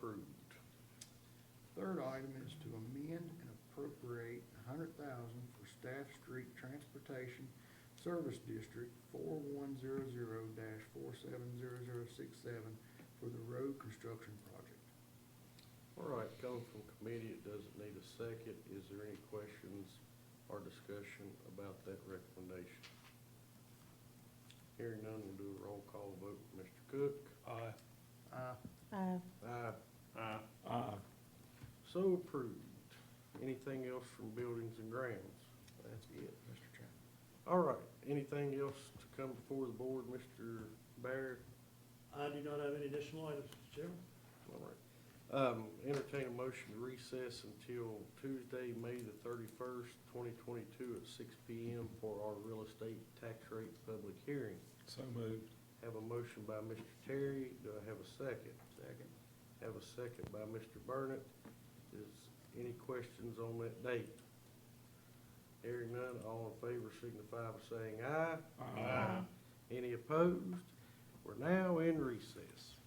approved. Third item is to amend and appropriate hundred thousand for Staff Street Transportation Service District four one zero zero four seven zero zero six seven for the road construction project. All right, coming from committee, it doesn't need a second. Is there any questions or discussion about that recommendation? Hearing none, we'll do a roll call vote. Mr. Cook? Aye. Uh, Aye. Aye. Aye. Aye. So approved. Anything else from buildings and grounds? that's it, Mr. Chairman. All right, anything else to come before the board, Mr. Barrett? I do not have any additional items, Mr. Chairman. All right. Um, entertain a motion to recess until Tuesday, May the thirty-first, twenty twenty-two at six P M for our real estate tax rate public hearing. So moved. Have a motion by Mr. Terry. Do I have a second? Second. Have a second by Mr. Burnett. Is any questions on that date? Hearing none, all in favor signify by saying aye. Aye. Any opposed? We're now in recess.